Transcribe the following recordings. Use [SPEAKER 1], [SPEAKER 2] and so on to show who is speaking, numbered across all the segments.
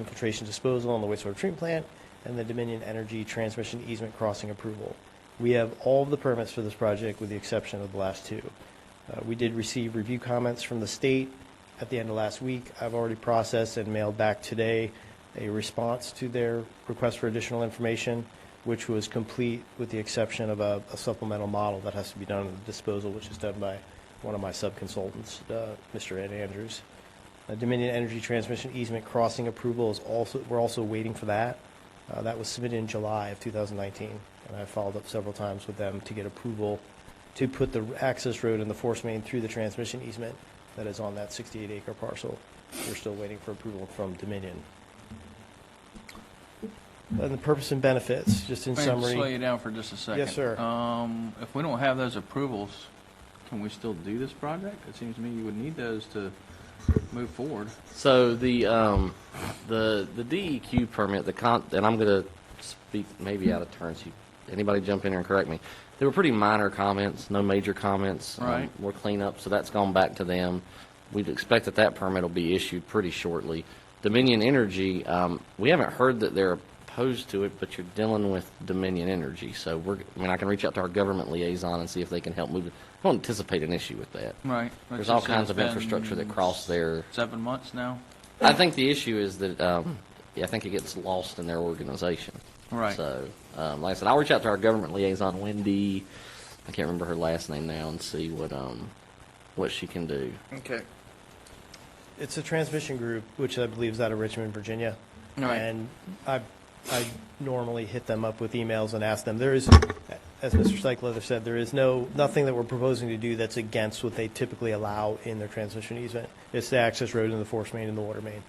[SPEAKER 1] infiltration disposal on the wastewater treatment plant, and the Dominion Energy transmission easement crossing approval. We have all of the permits for this project with the exception of the last two. Uh, We did receive review comments from the state at the end of last week. I've already processed and mailed back today a response to their request for additional information, which was complete with the exception of a a supplemental model that has to be done in the disposal, which is done by one of my subconsultants, uh, Mr. Ed Andrews. Uh, Dominion Energy Transmission Easement Crossing approval is also, we're also waiting for that. Uh, That was submitted in July of 2019, and I followed up several times with them to get approval to put the access road and the force main through the transmission easement that is on that 68-acre parcel. We're still waiting for approval from Dominion. And the purpose and benefits, just in
[SPEAKER 2] Wait, Slow
[SPEAKER 1] summary,
[SPEAKER 2] you down for just a second.
[SPEAKER 1] Yes, sir.
[SPEAKER 2] Um, if we don't have those approvals, can we still do this project? It seems to me you would need those to move forward.
[SPEAKER 3] So the um, the the DEQ permit, the con, and I'm going to speak maybe out of turn. So you, anybody jump in here and correct me. They were pretty minor comments, no major comments. um,
[SPEAKER 2] Right.
[SPEAKER 3] we're cleanup, so that's gone back to them. We'd expect that that permit will be issued pretty shortly. Dominion Energy, um, we haven't heard that they're opposed to it, but you're dealing with Dominion Energy, so we're. I mean, I can reach out to our government liaison and see if they can help move. it. I don't anticipate an issue with that.
[SPEAKER 2] Right.
[SPEAKER 3] There's all kinds of infrastructure that cross there.
[SPEAKER 2] Seven months now?
[SPEAKER 3] I think the issue is that um, I think it gets lost in their organization.
[SPEAKER 2] Right.
[SPEAKER 3] So, um, like I said, I'll reach out to our government liaison, Wendy. I can't remember her last name now, and see what um, what she can do.
[SPEAKER 2] Okay.
[SPEAKER 1] it's a transmission group, which I believe is out of Richmond, Virginia.
[SPEAKER 2] Right.
[SPEAKER 1] And I, I normally hit them up with emails and ask them, there is, as Mr. Cycleather said, there is no, nothing that we're proposing to do that's against what they typically allow in their transmission easement. It's the access road and the force main and the water main.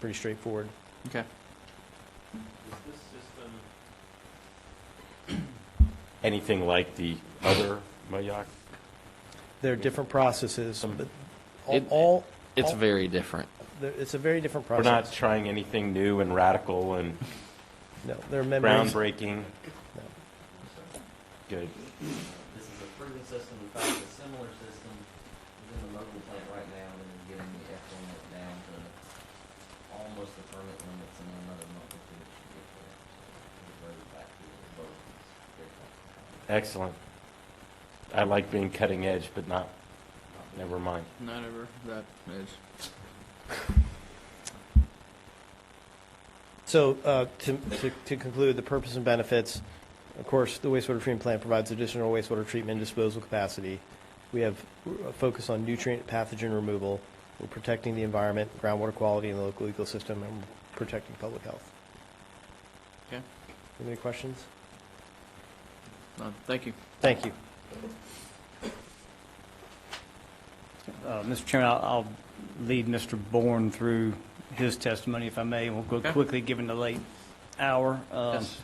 [SPEAKER 1] Pretty straightforward.
[SPEAKER 2] Okay.
[SPEAKER 4] anything like the other Mayak?
[SPEAKER 1] There are different processes, but all,
[SPEAKER 3] It-
[SPEAKER 1] all.
[SPEAKER 3] It's
[SPEAKER 1] all-
[SPEAKER 3] very different.
[SPEAKER 1] there- It's a very different
[SPEAKER 4] We're
[SPEAKER 1] process.
[SPEAKER 4] not trying anything new and radical and
[SPEAKER 1] No, there are members.
[SPEAKER 4] groundbreaking. Good.
[SPEAKER 5] This is a proven system, in fact, a similar system within the local plant right now, and then getting the F limit down to almost the permit limits in another month or two, it should get there. The road back to the boat is very comfortable.
[SPEAKER 4] Excellent. I like being cutting edge, but not, never mind.
[SPEAKER 2] Not ever, that is.
[SPEAKER 1] So uh, to to- to conclude, the purpose and benefits, of course, the wastewater treatment plant provides additional wastewater treatment disposal capacity. We have a focus on nutrient pathogen removal. We're protecting the environment, groundwater quality, and the local ecosystem, and we're protecting public health.
[SPEAKER 2] Okay.
[SPEAKER 1] Any questions?
[SPEAKER 2] No, uh, thank you.
[SPEAKER 1] Thank you.
[SPEAKER 6] Uh, Mr. Chairman, I'll- I'll lead Mr. Bourne through his testimony, if I may. We'll go
[SPEAKER 2] Okay.
[SPEAKER 6] quickly, given the late hour. Um,
[SPEAKER 2] Yes.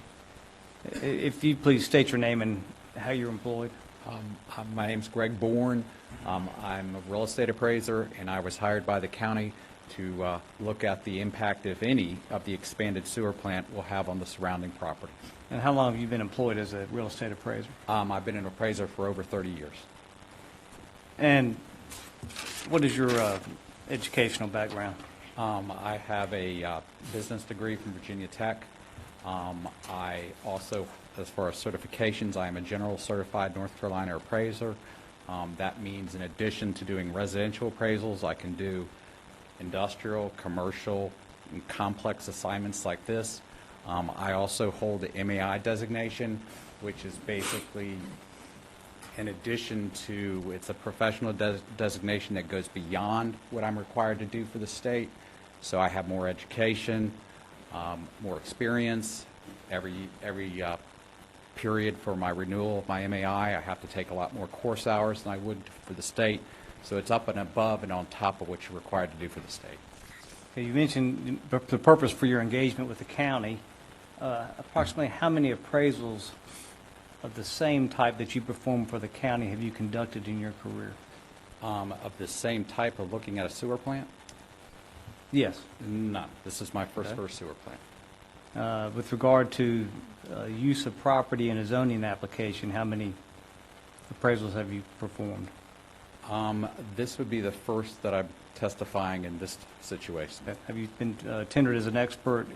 [SPEAKER 6] i- If you please state your name and how you're employed.
[SPEAKER 7] Um, hi, My name's Greg Bourne. Um, I'm a real estate appraiser, and I was hired by the county to uh, look at the impact, if any, of the expanded sewer plant will have on the surrounding property.
[SPEAKER 6] And how long have you been employed as a real estate appraiser?
[SPEAKER 7] Um, I've been an appraiser for over 30 years.
[SPEAKER 6] And what is your uh, educational background?
[SPEAKER 7] Um, I have a uh, business degree from Virginia Tech. Um, I also, as far as certifications, I am a general certified North Carolina appraiser. Um, that means in addition to doing residential appraisals, I can do industrial, commercial, and complex assignments like this. Um, I also hold the MAI designation, which is basically in addition to, it's a professional des- designation that goes beyond what I'm required to do for the state. So I have more education, um, more experience. Every, every uh, period for my renewal of my MAI, I have to take a lot more course hours than I would for the state. So it's up and above and on top of what you're required to do for the state.
[SPEAKER 6] Okay, You mentioned the the purpose for your engagement with the county. Uh, Approximately how many appraisals of the same type that you perform for the county have you conducted in your career?
[SPEAKER 7] Um, Of the same type of looking at a sewer plant?
[SPEAKER 6] Yes.
[SPEAKER 7] None. This is my first
[SPEAKER 6] Okay.
[SPEAKER 7] first sewer plant.
[SPEAKER 6] Uh, With regard to uh, use of property in a zoning application, how many appraisals have you performed?
[SPEAKER 7] Um, This would be the first that I'm testifying in this situation.
[SPEAKER 6] Have you been uh, tendered as an expert